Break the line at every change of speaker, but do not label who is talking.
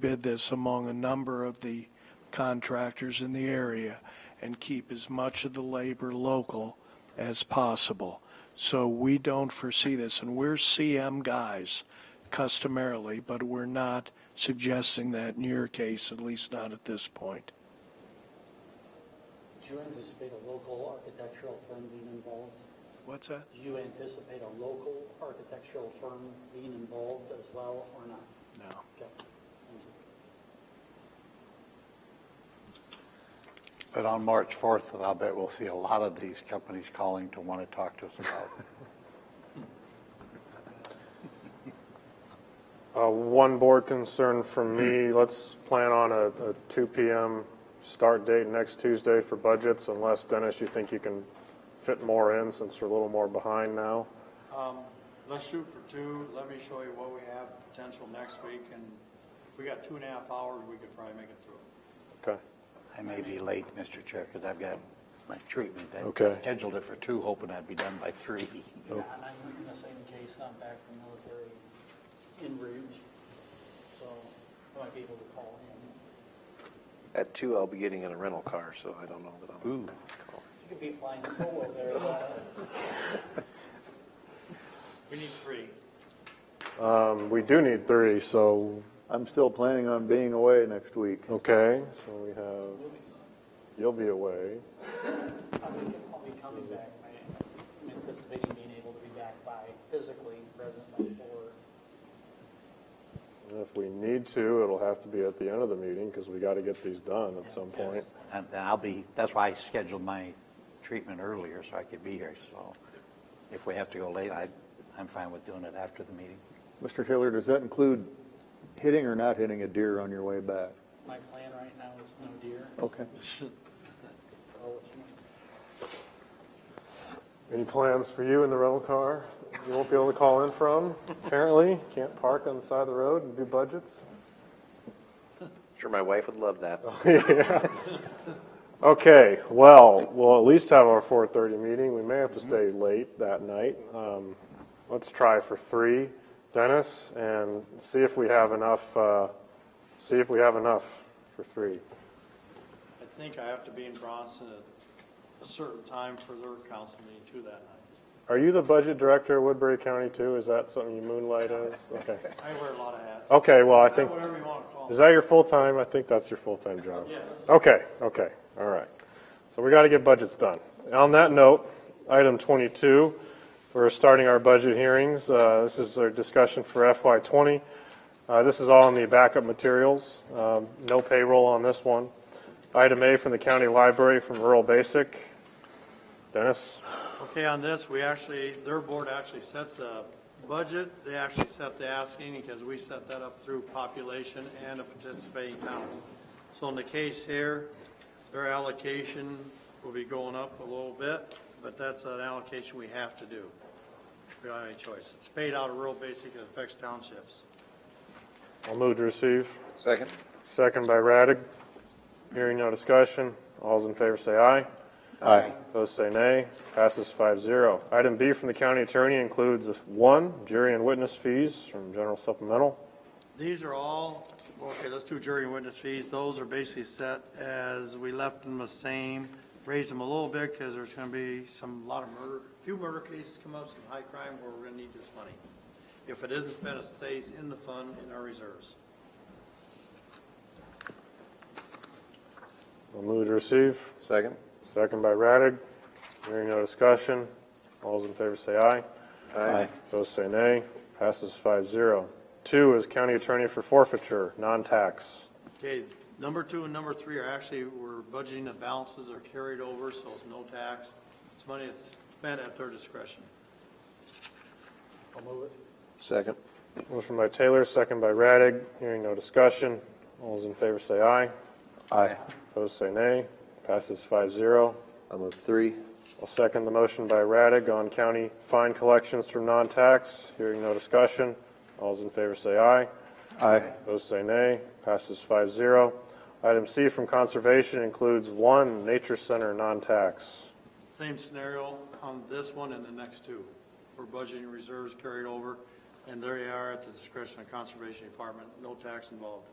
bid this among a number of the contractors in the area and keep as much of the labor local as possible. So we don't foresee this, and we're CM guys customarily, but we're not suggesting that in your case, at least not at this point.
Do you anticipate a local architectural firm being involved?
What's that?
Do you anticipate a local architectural firm being involved as well or not?
No.
Okay, thank you.
But on March 4th, I'll bet we'll see a lot of these companies calling to want to talk to us about.
Uh, One board concern from me, let's plan on a a 2 PM start date next Tuesday for budgets unless, Dennis, you think you can fit more in since we're a little more behind now.
Let's shoot for two. Let me show you what we have potential next week, and if we got two and a half hours, we could probably make it through.
Okay.
I may be late, Mr. Chair, because I've got my treatment. I
Okay.
Scheduled it for two, hoping I'd be done by three.
Yeah, and I'm in the same case, I'm back from military in Rouge, so I might be able to call in.
At two, I'll be getting in a rental car, so I don't know that I'll. Ooh.
You could be flying solo there, uh,
We need three.
Um, We do need three, so,
I'm still planning on being away next week.
okay, so we have, you'll be away.
I'll be, I'll be coming back, I'm anticipating being able to be back by physically present by four.
And If we need to, it'll have to be at the end of the meeting because we got to get these done at some point.
And and I'll be, that's why I scheduled my treatment earlier, so I could be here. So if we have to go late, I, I'm fine with doing it after the meeting.
Mr. Taylor, does that include hitting or not hitting a deer on your way back?
My plan right now is no deer.
Okay.
I'll let you know.
Any plans for you in the rental car? You won't be able to call in from, apparently. Can't park on the side of the road and do budgets.
Sure, my wife would love that.
Okay, well, we'll at least have our 4:30 meeting. We may have to stay late that night. Um, Let's try for three, Dennis, and see if we have enough, uh, see if we have enough for three.
I think I have to be in Bronson at a certain time for their council meeting too that night.
Are you the budget director of Woodbury County too? Is that something you moonlight as? Okay.
I wear a lot of hats.
Okay, well, I
Uh,
think,
Whatever you want to call
Oh, is
them.
that your full-time? I think that's your full-time job.
Yes.
Okay, okay, all right. So we got to get budgets done. On that note, item 22, we're starting our budget hearings. Uh, This is our discussion for FY '20. Uh, This is all in the backup materials. Um, No payroll on this one. Item A from the county library from rural basic. Dennis?
Okay, on this, we actually, their board actually sets a budget. They actually set the asking because we set that up through population and a participating town. So in the case here, their allocation will be going up a little bit, but that's an allocation we have to do. We don't have any choice. It's paid out of rural basic, it affects townships.
I'll move to receive.
Second?
Second by Radig. Hearing no discussion. All's in favor say aye.
Aye.
Opposed, say nay. Passes 5-0. Item B from the county attorney includes one, jury and witness fees from general supplemental.
These are all, okay, let's do jury and witness fees. Those are basically set as we left them the same, raised them a little bit because there's going to be some, lot of murder, few murder cases come up, some high crime where we're going to need this money. If it isn't spent, it stays in the fund in our reserves.
I'll move to receive.
Second?
Second by Radig. Hearing no discussion. All's in favor say aye.
Aye.
Opposed, say nay. Passes 5-0. Two is county attorney for forfeiture, non-tax.
Okay, number two and number three are actually, we're budgeting the balances that are carried over, so it's no tax. It's money that's spent at their discretion.
Second?
Motion by Taylor, second by Radig. Hearing no discussion. All's in favor say aye.
Aye.
Opposed, say nay. Passes 5-0.
I'll move three.
I'll second the motion by Raddick on county fine collections from non-tax. Hearing no discussion. All's in favor say aye.
Aye.
Those say nay. Passes 5-0. Item C from conservation includes one nature center non-tax.
Same scenario on this one and the next two. We're budgeting reserves carried over, and there they are at the discretion of Conservation Department, no tax involved.